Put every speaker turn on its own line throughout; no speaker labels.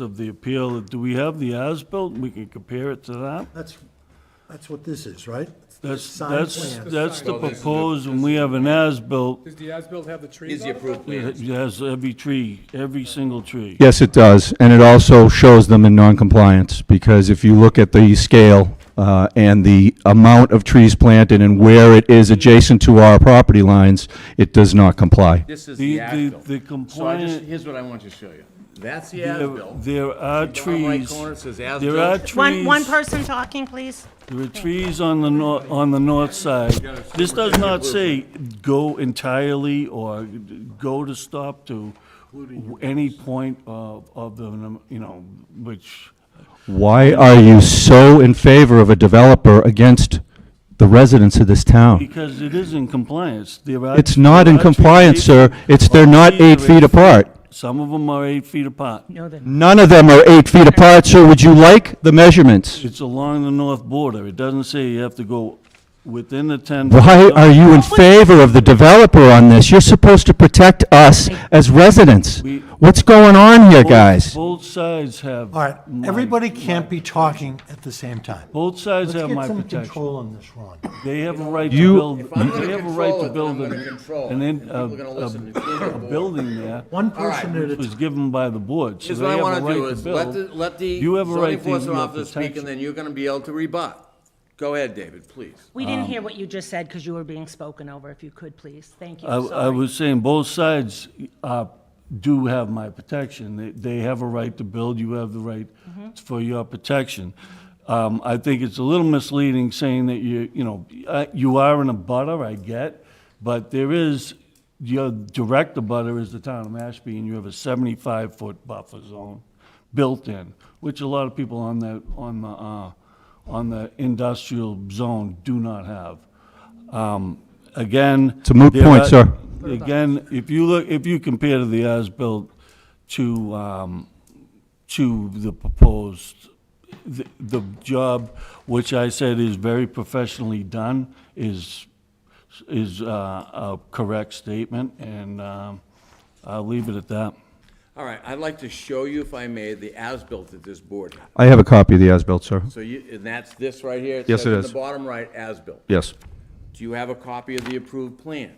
of the appeal, do we have the as-built? We can compare it to that?
That's, that's what this is, right?
That's,
Sign
that's,
plan.
that's the
Well, this is the-
proposed, and we have an as-built,
Does the as-built have the trees
Is
on
the
it?
approved
it
plans.
has every tree, every single tree.
Yes, it does, and it also shows them in noncompliance because if you look at the scale uh, and the amount of trees planted and where it is adjacent to our property lines, it does not comply.
This is
The-
the
the-
as-built.
the
So I just,
compliant-
here's what I want to show you. That's the
There-
as-built.
There are
Bottom right
trees,
corner says
there are
as-built.
One, one
trees,
person talking, please.
there are trees on the nor, on the north side. This does not say go entirely or go to stop to any point of, of the, num- you know, which,
Why are you so in favor of a developer against the residents of this town?
because it is in compliance. There are.
It's not in
there are trees-
compliance, sir. It's, they're not eight feet apart.
Some of them are eight feet apart.
None of them are eight feet apart, sir. Would you like the measurements?
It's along the north border. It doesn't say you have to go within the 10.
Why are you in favor of the developer on this? You're supposed to protect us as residents.
We-
What's going on here,
Both-
guys?
Both sides have.
All right,
my-
everybody can't be talking at the same time.
Both sides
Let's
have
get
my
some
protection.
control on this, Ron.
They have a right to
You-
build,
If I'm gonna
they have a right
control
to
it,
build
then I'm
an-
gonna control it,
an,
and
in-
people are gonna listen to
a,
the
a, a
board.
building there
One person at a
was
time.
given by the board, so
Here's
they
what I
have a
want to do
right to
is let the,
build.
let the
You have a
zoning
right to use
enforcement
your
officer speak and
protection.
then you're gonna be able to rebut. Go ahead, David, please.
We didn't
Um,
hear what you just said because you were being spoken over. If you could, please. Thank you.
Uh,
I, I
Sorry.
was saying, both sides, uh, do have my protection. They, they have a right to build, you have the right
Mm-hmm.
for your protection. Um, I think it's a little misleading saying that you, you know, uh, you are in a butter, I get, but there is, your direct abutter is the town of Mashpee, and you have a seventy-five foot buffer zone built in, which a lot of people on the, on the, uh, on the industrial zone do not have. Um, Again.
It's a moot
there
point,
are-
sir.
Again, if you look, if you compare the as-built to, um, to the proposed, the, the job, which I said is very professionally done, is, is, uh, a correct statement, and, um, I'll leave it at that.
All right, I'd like to show you, if I may, the as-built at this board.
I have a copy of the as-built, sir.
So you, and that's this right here.
Yes,
says
it
in
is.
the bottom right, as-built.
Yes.
Do you have a copy of the approved plan?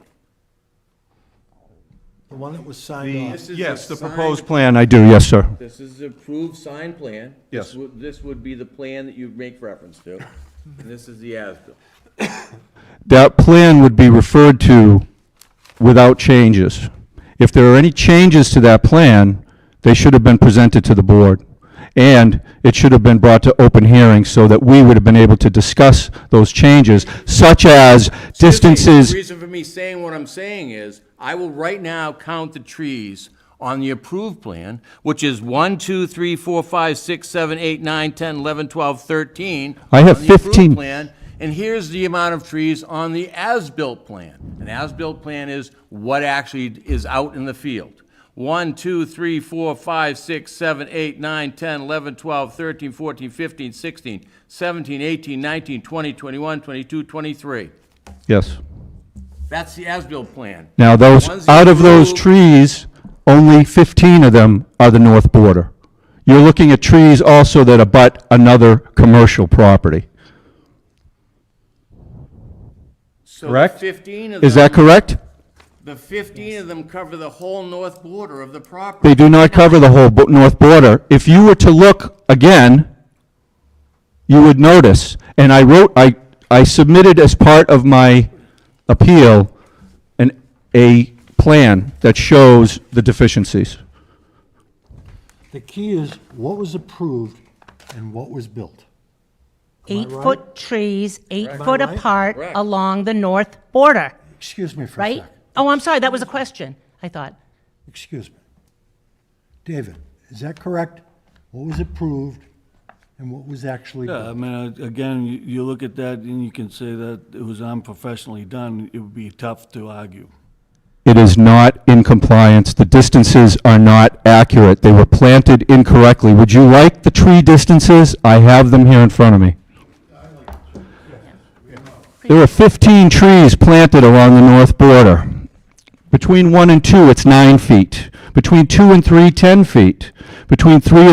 The one that was signed off.
This is
Yes, the
signed-
proposed plan, I do, yes, sir.
This is the approved sign plan.
Yes.
This would, this would be the plan that you'd make reference to, and this is the as-built.
That plan would be referred to without changes. If there are any changes to that plan, they should have been presented to the board. And it should have been brought to open hearing so that we would have been able to discuss those changes, such as distances.
The reason for me saying what I'm saying is, I will right now count the trees on the approved plan, which is 1, 2, 3, 4, 5, 6, 7, 8, 9, 10, 11, 12, 13.
I have
on the approved
15.
plan, And here's the amount of trees on the as-built plan. An as-built plan is what actually is out in the field. 1, 2, 3, 4, 5, 6, 7, 8, 9, 10, 11, 12, 13, 14, 15, 16, 17, 18, 19, 20, 21, 22, 23.
Yes.
That's the as-built plan.
Now, those,
One's
out of those
approved.
trees, only 15 of them are the north border. You're looking at trees also that abut another commercial property.
So
correct?
Fifteen of them.
Is that correct?
The fifteen of them cover the whole north border of the property.
They do not cover the whole bo- north border. If you were to look again, you would notice, and I wrote, I, I submitted as part of my appeal, an, a plan that shows the deficiencies.
The key is what was approved and what was built.
Eight-foot trees,
Am I
eight-foot
right?
apart
Correct.
along the north border,
Excuse me for a
right?
sec.
Oh, I'm sorry, that was a question, I thought.
Excuse me. David, is that correct? What was approved and what was actually
Yeah, I
built?
mean, uh, again, you, you look at that, and you can say that it was unprofessionally done, it would be tough to argue.
It is not in compliance. The distances are not accurate. They were planted incorrectly. Would you like the tree distances? I have them here in front of me. There were 15 trees planted along the north border. Between 1 and 2, it's 9 feet. Between 2 and 3, 10 feet. Between 3